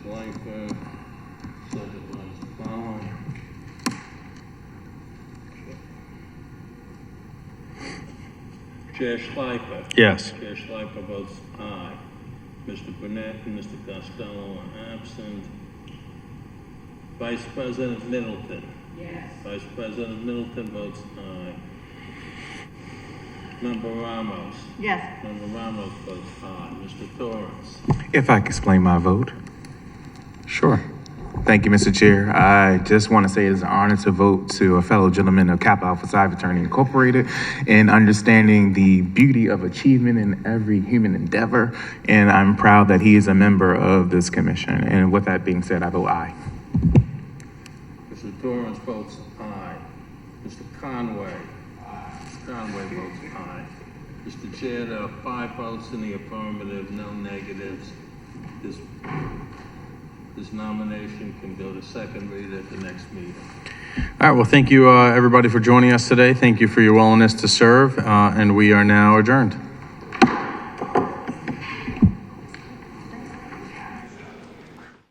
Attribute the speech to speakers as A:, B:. A: confirm subject line is following. Chair Schleifer.
B: Yes.
A: Chair Schleifer votes aye. Mr. Burnett and Mr. Costello are absent. Vice President Middleton.
C: yes,
A: Vice President Middleton votes aye. Member Ramos.
D: yes,
A: Member Ramos votes aye. Mr. Torrance.
B: If I could explain my vote. Sure. Thank you, Mr. Chair. I just want to say it is an honor to vote to a fellow gentleman of Kappa Alpha Psi Fraternity Incorporated in understanding the beauty of achievement in every human endeavor. And I'm proud that he is a member of this commission. And with that being said, I vote aye.
A: Mr. Torrance votes aye. Mr. Conway. Mr. Conway votes aye. Mr. Chair, there are five votes in the affirmative, no negatives. This, this nomination can go to second read at the next meeting.
E: All right, well, thank you, uh, everybody, for joining us today. Thank you for your willingness to serve, uh, and we are now adjourned.